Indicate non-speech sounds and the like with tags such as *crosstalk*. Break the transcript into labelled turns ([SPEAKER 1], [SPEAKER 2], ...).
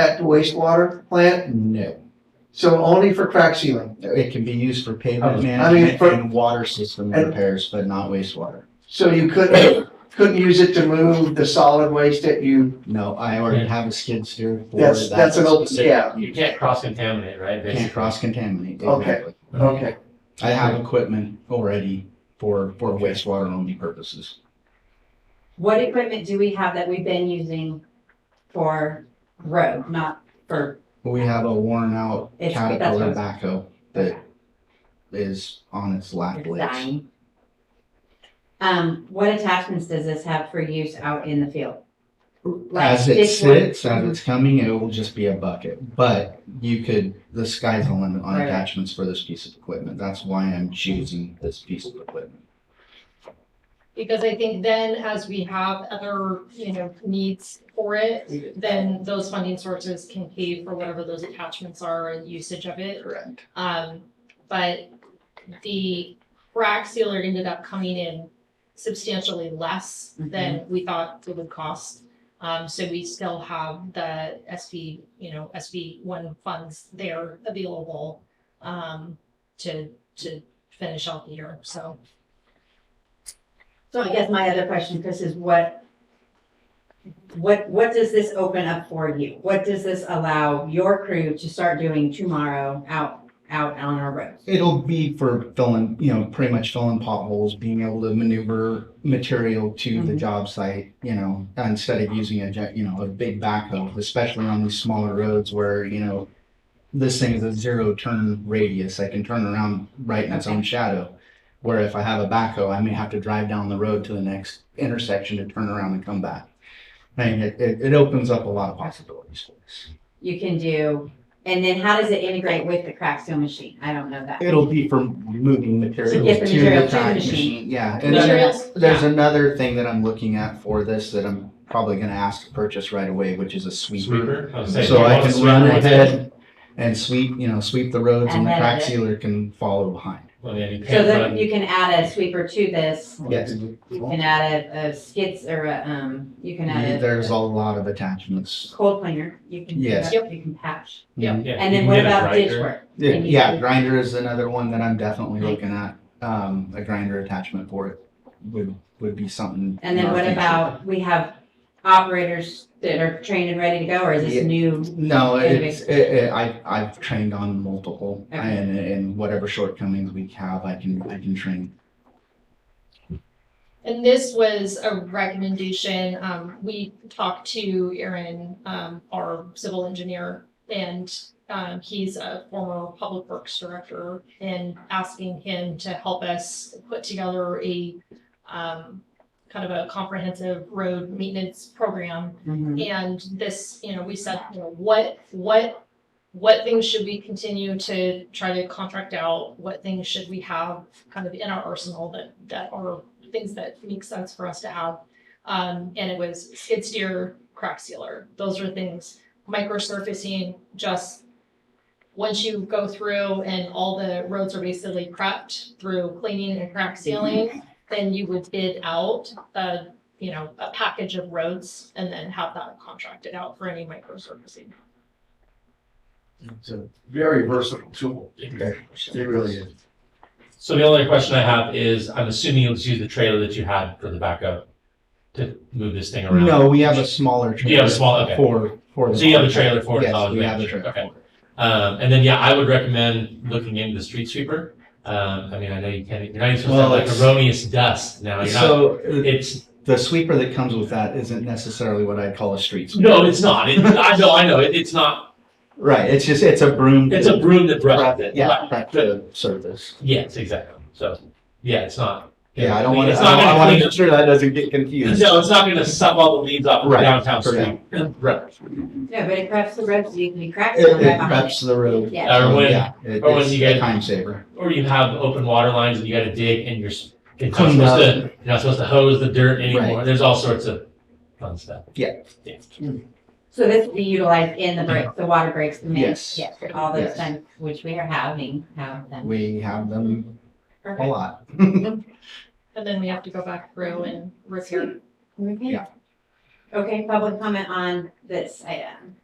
[SPEAKER 1] at the wastewater plant?
[SPEAKER 2] No,
[SPEAKER 1] So only for crack sealing.
[SPEAKER 2] it can be used for
[SPEAKER 1] I
[SPEAKER 2] pavement
[SPEAKER 1] mean,
[SPEAKER 2] management
[SPEAKER 1] for-
[SPEAKER 2] and water system
[SPEAKER 1] And-
[SPEAKER 2] repairs, but not wastewater.
[SPEAKER 1] So you couldn't, couldn't use it to move the solid waste that you,
[SPEAKER 2] No, I already have a skid steer for
[SPEAKER 1] that's,
[SPEAKER 2] that.
[SPEAKER 1] that's an open, yeah,
[SPEAKER 3] You can't cross contaminate, right?
[SPEAKER 2] Can't
[SPEAKER 3] basically?
[SPEAKER 2] cross contaminate.
[SPEAKER 1] Okay.
[SPEAKER 2] exactly.
[SPEAKER 1] okay.
[SPEAKER 2] I have equipment already for, for wastewater only purposes.
[SPEAKER 4] What equipment do we have that we've been using for road, not for,
[SPEAKER 2] We have a worn out
[SPEAKER 4] It's-
[SPEAKER 2] Caterpillar
[SPEAKER 4] that's
[SPEAKER 2] backhoe that is on its last
[SPEAKER 4] it's
[SPEAKER 2] legs.
[SPEAKER 4] dying? Um, what attachments does this have for use out in the field? Like mm-hmm.
[SPEAKER 2] As it
[SPEAKER 4] this one?
[SPEAKER 2] sits, as it's coming, it will just be a bucket, but you could, the sky's the limit on
[SPEAKER 4] Right.
[SPEAKER 2] attachments for this piece of equipment. That's why I'm choosing this piece of equipment.
[SPEAKER 5] Because I think then as we have other, you know, needs for it, then those funding sources can pay for whatever those attachments are and usage of it.
[SPEAKER 2] Correct.
[SPEAKER 5] Um, but the crack sealer ended up coming in substantially less
[SPEAKER 2] Mm-hmm.
[SPEAKER 5] than we thought it would cost. Um, so we still have the SV, you know, SV one funds there available, um, to, to finish out the year, so.
[SPEAKER 4] So I guess my other question, Chris, is what, what, what does this open up for you? What does this allow your crew to start doing tomorrow out, out on our roads?
[SPEAKER 2] It'll be for filling, you know, pretty much filling potholes, being able to maneuver material to the
[SPEAKER 4] Mhm.
[SPEAKER 2] job site, you know, instead of using a, jet- you know, a big backhoe, especially on these smaller roads where, you know, this thing is a zero turn radius. I can turn around right in its own shadow. Where if I have a backhoe, I may have to drive down the road to the next intersection to turn around and come back. And it, it, it opens up a lot of possibilities for us.
[SPEAKER 4] You can do, and then how does it integrate with the crack seal machine? I don't know that.
[SPEAKER 2] It'll be for moving material
[SPEAKER 4] get the
[SPEAKER 2] to
[SPEAKER 4] material
[SPEAKER 2] the
[SPEAKER 4] to the
[SPEAKER 2] crack
[SPEAKER 4] machine.
[SPEAKER 2] machine, yeah. And then
[SPEAKER 5] Materials,
[SPEAKER 2] there's another thing that I'm looking at for this that I'm probably gonna ask to purchase right away, which is a sweeper.
[SPEAKER 3] Sweeper. was saying,
[SPEAKER 2] So
[SPEAKER 3] you
[SPEAKER 2] I
[SPEAKER 3] want a
[SPEAKER 2] can run
[SPEAKER 3] sweeper?
[SPEAKER 2] ahead and sweep, you know, sweep the roads and the
[SPEAKER 4] Ahead
[SPEAKER 2] crack
[SPEAKER 4] of it.
[SPEAKER 2] sealer can follow behind.
[SPEAKER 3] Well, then you
[SPEAKER 4] So
[SPEAKER 3] can't
[SPEAKER 4] then
[SPEAKER 3] run,
[SPEAKER 4] you can add a sweeper to this,
[SPEAKER 2] Yes.
[SPEAKER 4] you can add a, a skids or a, um, you can add
[SPEAKER 2] There's a
[SPEAKER 4] a
[SPEAKER 2] lot of attachments.
[SPEAKER 4] cold planer, you can, you
[SPEAKER 2] Yes.
[SPEAKER 4] can patch.
[SPEAKER 5] Yeah.
[SPEAKER 2] Mhm.
[SPEAKER 3] yeah,
[SPEAKER 4] And
[SPEAKER 3] you
[SPEAKER 4] then
[SPEAKER 3] can
[SPEAKER 4] what
[SPEAKER 3] get a
[SPEAKER 4] about ditch
[SPEAKER 3] grinder.
[SPEAKER 4] work?
[SPEAKER 2] Yeah,
[SPEAKER 4] And you
[SPEAKER 2] yeah,
[SPEAKER 4] can-
[SPEAKER 2] grinder is another one that I'm definitely looking at. Um, a grinder attachment for it would, would be something.
[SPEAKER 4] And
[SPEAKER 2] in
[SPEAKER 4] then
[SPEAKER 2] our
[SPEAKER 4] what
[SPEAKER 2] future.
[SPEAKER 4] about, we have operators that are trained and ready to go, or is
[SPEAKER 2] Yeah.
[SPEAKER 4] this new?
[SPEAKER 2] No,
[SPEAKER 4] Yeah,
[SPEAKER 2] it's, it, it, I, I've trained on multiple
[SPEAKER 4] Okay.
[SPEAKER 2] and, and whatever shortcomings we have, I can, I can train.
[SPEAKER 5] And this was a recommendation, um, we talked to Aaron, um, our civil engineer, and, um, he's a former public works director, and asking him to help us put together a, um, kind of a comprehensive road maintenance program
[SPEAKER 4] Mhm.
[SPEAKER 5] and this, you know, we said, you know, what, what, what things should we continue to try to contract out? What things should we have kind of in our arsenal that, that are things that make sense for us to have? Um, and it was skid steer, crack sealer. Those are things, micro surfacing, just once you go through and all the roads are basically prepped through cleaning and crack sealing, then you would bid out the you know, a package of roads and then have that contracted out for any micro surfacing.
[SPEAKER 6] It's a very versatile tool. It really is.
[SPEAKER 3] So the only question I have is, I'm assuming you'll just use the trailer that you had for the backup to move this thing around?
[SPEAKER 2] No, we have a smaller trailer.
[SPEAKER 3] You have a small- okay.
[SPEAKER 2] For, for. the
[SPEAKER 3] So you have a
[SPEAKER 2] contract.
[SPEAKER 3] trailer for it,
[SPEAKER 2] Yes,
[SPEAKER 3] solid
[SPEAKER 2] we have a
[SPEAKER 3] waste.
[SPEAKER 2] trailer
[SPEAKER 3] Okay.
[SPEAKER 2] for it.
[SPEAKER 3] Um, and then, yeah, I would recommend looking into the street sweeper. Um, I mean, I know you can't, you're not even supposed to have
[SPEAKER 2] Well,
[SPEAKER 3] like
[SPEAKER 2] it's-
[SPEAKER 3] erroneous dust now, you're not,
[SPEAKER 2] So uh,
[SPEAKER 3] it's,
[SPEAKER 2] the sweeper that comes with that isn't necessarily what I'd call a street sweeper.
[SPEAKER 3] no, it's not, it, I know, I know, it, it's not,
[SPEAKER 2] Right, it's just, it's a broom.
[SPEAKER 3] it's a broom that brushes it.
[SPEAKER 2] Yeah,
[SPEAKER 3] Right.
[SPEAKER 2] prep to service.
[SPEAKER 3] Yes, exactly, so, yeah, it's not.
[SPEAKER 2] Yeah, I don't want to,
[SPEAKER 3] It's not gonna
[SPEAKER 2] I want to
[SPEAKER 3] clean-
[SPEAKER 2] make sure that doesn't get confused.
[SPEAKER 3] No, it's not gonna suck all the leaves off of
[SPEAKER 2] Right,
[SPEAKER 3] downtown street.
[SPEAKER 2] correct.
[SPEAKER 3] *laughs* Right.
[SPEAKER 4] Yeah, but it preps the roads, you can crack
[SPEAKER 2] It,
[SPEAKER 4] seal
[SPEAKER 2] it
[SPEAKER 4] right behind it.
[SPEAKER 2] preps the road.
[SPEAKER 4] Yeah.
[SPEAKER 3] Or when-
[SPEAKER 2] Yeah, it-
[SPEAKER 3] or when
[SPEAKER 2] it's
[SPEAKER 3] you get-
[SPEAKER 2] a Time saver.
[SPEAKER 3] Or you have open water lines and you gotta dig and you're, s- you're not
[SPEAKER 2] Clean
[SPEAKER 3] supposed
[SPEAKER 2] up.
[SPEAKER 3] to, you're not supposed to hose the dirt anymore, there's all sorts of fun stuff.
[SPEAKER 2] Yeah.
[SPEAKER 4] So this will be utilized in the break, the water breaks, the
[SPEAKER 2] Yes.
[SPEAKER 4] minutes, yes, all
[SPEAKER 2] Yes.
[SPEAKER 4] those times, which we are having, have them.
[SPEAKER 2] We have them a
[SPEAKER 5] Perfect.
[SPEAKER 2] lot. *laughs*
[SPEAKER 5] And then we have to go back through and repair.
[SPEAKER 4] Okay.
[SPEAKER 2] Yeah.
[SPEAKER 4] Okay, public comment on this item.